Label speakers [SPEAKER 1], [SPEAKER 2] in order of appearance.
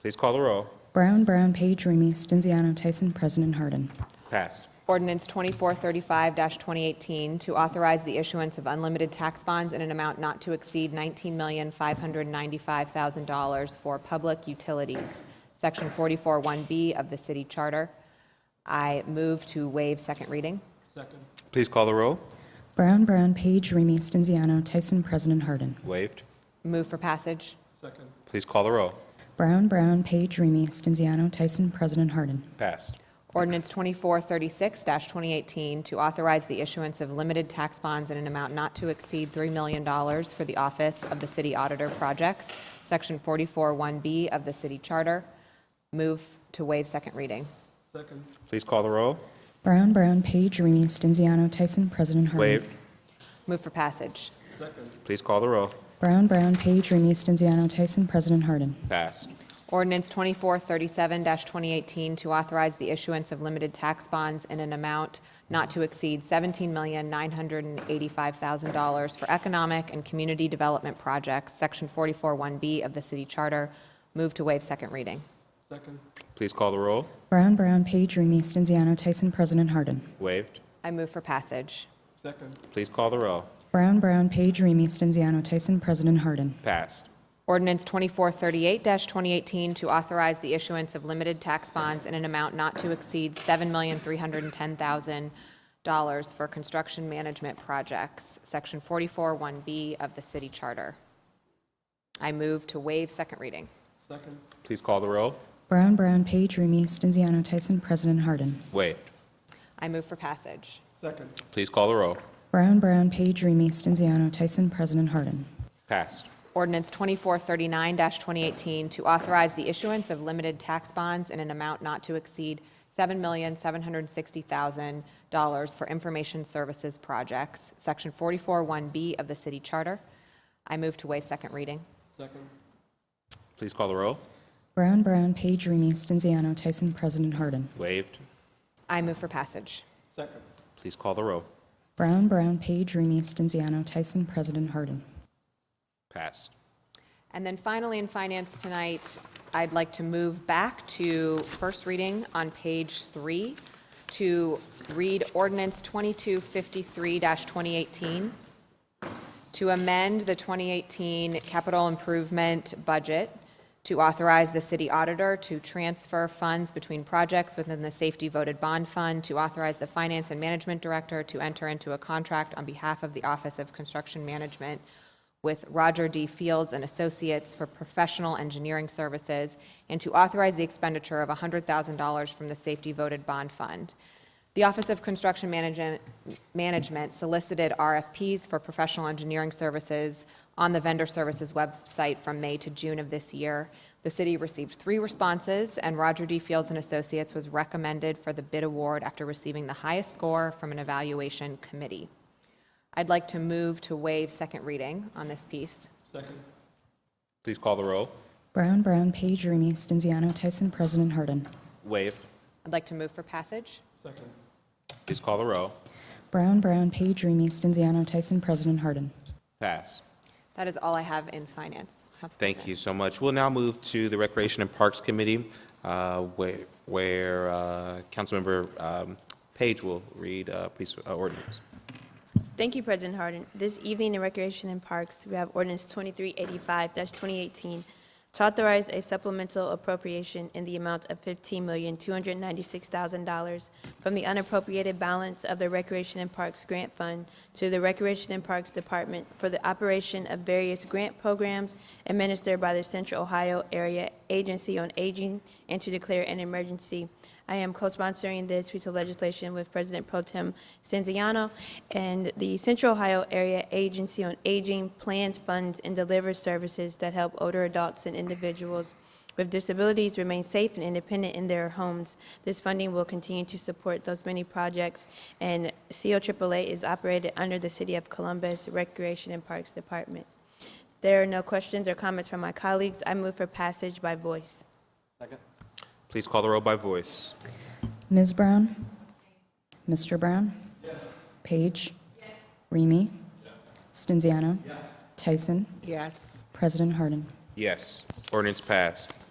[SPEAKER 1] Please call the roll.
[SPEAKER 2] Brown, Brown, Page, Remy, Stenziano, Tyson, President Harden.
[SPEAKER 1] Passed.
[SPEAKER 3] Ordinance 2435-2018 to authorize the issuance of unlimited tax bonds in an amount not to exceed $19,595,000 for public utilities, Section 441B of the City Charter. I move to waive second reading.
[SPEAKER 1] Please call the roll.
[SPEAKER 2] Brown, Brown, Page, Remy, Stenziano, Tyson, President Harden.
[SPEAKER 1] Waived.
[SPEAKER 3] Move for passage.
[SPEAKER 1] Please call the roll.
[SPEAKER 2] Brown, Brown, Page, Remy, Stenziano, Tyson, President Harden.
[SPEAKER 1] Passed.
[SPEAKER 3] Ordinance 2436-2018 to authorize the issuance of limited tax bonds in an amount not to exceed $3 million for the Office of the City Auditor Projects, Section 441B of the City Charter. Move to waive second reading.
[SPEAKER 1] Please call the roll.
[SPEAKER 2] Brown, Brown, Page, Remy, Stenziano, Tyson, President Harden.
[SPEAKER 1] Waived.
[SPEAKER 3] Move for passage.
[SPEAKER 1] Please call the roll.
[SPEAKER 2] Brown, Brown, Page, Remy, Stenziano, Tyson, President Harden.
[SPEAKER 1] Passed.
[SPEAKER 3] Ordinance 2437-2018 to authorize the issuance of limited tax bonds in an amount not to exceed $17,985,000 for economic and community development projects, Section 441B of the City Charter. Move to waive second reading.
[SPEAKER 1] Please call the roll.
[SPEAKER 2] Brown, Brown, Page, Remy, Stenziano, Tyson, President Harden.
[SPEAKER 1] Waived.
[SPEAKER 3] I move for passage.
[SPEAKER 1] Please call the roll.
[SPEAKER 2] Brown, Brown, Page, Remy, Stenziano, Tyson, President Harden.
[SPEAKER 1] Passed.
[SPEAKER 3] Ordinance 2438-2018 to authorize the issuance of limited tax bonds in an amount not to exceed $7,310,000 for construction management projects, Section 441B of the City Charter. I move to waive second reading.
[SPEAKER 1] Please call the roll.
[SPEAKER 2] Brown, Brown, Page, Remy, Stenziano, Tyson, President Harden.
[SPEAKER 1] Waived.
[SPEAKER 3] I move for passage.
[SPEAKER 1] Please call the roll.
[SPEAKER 2] Brown, Brown, Page, Remy, Stenziano, Tyson, President Harden.
[SPEAKER 1] Passed.
[SPEAKER 3] Ordinance 2439-2018 to authorize the issuance of limited tax bonds in an amount not to exceed $7,760,000 for information services projects, Section 441B of the City Charter. I move to waive second reading.
[SPEAKER 1] Please call the roll.
[SPEAKER 2] Brown, Brown, Page, Remy, Stenziano, Tyson, President Harden.
[SPEAKER 1] Waived.
[SPEAKER 3] I move for passage.
[SPEAKER 1] Please call the roll.
[SPEAKER 2] Brown, Brown, Page, Remy, Stenziano, Tyson, President Harden.
[SPEAKER 1] Passed.
[SPEAKER 3] And then finally, in finance tonight, I'd like to move back to first reading on page three to read ordinance 2253-2018 to amend the 2018 capital improvement budget to authorize the city auditor to transfer funds between projects within the safety voted bond fund, to authorize the finance and management director to enter into a contract on behalf of the Office of Construction Management with Roger D. Fields and Associates for professional engineering services, and to authorize the expenditure of $100,000 from the safety voted bond fund. The Office of Construction Manage- Management solicited RFPs for professional engineering services on the vendor services website from May to June of this year. The city received three responses, and Roger D. Fields and Associates was recommended for the bid award after receiving the highest score from an evaluation committee. I'd like to move to waive second reading on this piece.
[SPEAKER 1] Please call the roll.
[SPEAKER 2] Brown, Brown, Page, Remy, Stenziano, Tyson, President Harden.
[SPEAKER 1] Waived.
[SPEAKER 3] I'd like to move for passage.
[SPEAKER 1] Please call the roll.
[SPEAKER 2] Brown, Brown, Page, Remy, Stenziano, Tyson, President Harden.
[SPEAKER 1] Passed.
[SPEAKER 3] That is all I have in finance. Council
[SPEAKER 1] Thank
[SPEAKER 3] President.
[SPEAKER 1] you so much. We'll now move to the Recreation and Parks Committee, uh, where where, uh, Councilmember um, Page will read uh, piece of uh, ordinance.
[SPEAKER 4] Thank you, President Harden. This evening in Recreation and Parks, we have ordinance 2385-2018 to authorize a supplemental appropriation in the amount of $15,296,000 from the unappropriated balance of the Recreation and Parks Grant Fund to the Recreation and Parks Department for the operation of various grant programs administered by the Central Ohio Area Agency on Aging and to declare an emergency. I am co-sponsoring this piece of legislation with President Pro Tem Stanziano, and the Central Ohio Area Agency on Aging plans, funds, and delivers services that help older adults and individuals with disabilities remain safe and independent in their homes. This funding will continue to support those many projects, and COAAA is operated under the City of Columbus Recreation and Parks Department. There are no questions or comments from my colleagues. I move for passage by voice.
[SPEAKER 1] Please call the roll by voice.
[SPEAKER 2] Ms. Brown? Mr. Brown? Page? Remy? Stenziano? Tyson,
[SPEAKER 5] Yes.
[SPEAKER 2] President Harden.
[SPEAKER 1] Yes, ordinance passed.